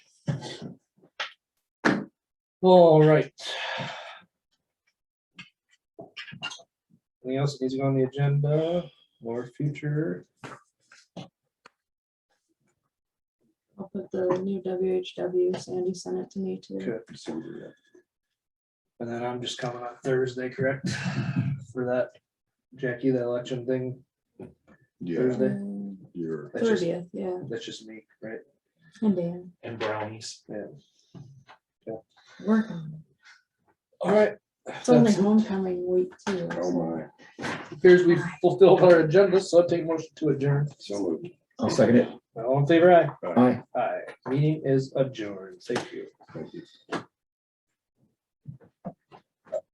All right. Anything else that needs to go on the agenda or future? I'll put the new WHW, Sandy sent it to me too. Good. And then I'm just coming on Thursday, correct? For that, Jackie, that election thing, Yeah, Thursday? Um, you're, That's just, Thirtieth, yeah, that's just me, right? and Dan, and brownies. work on All right. it. It's only That's- homecoming week too. oh so- my, Appears we fulfilled our agenda, so I'll take motion to adjourn. so moved. I'll second it. All in favor, aye? All right, Aye. Aye. Meeting is adjourned. Thank you. Thank you.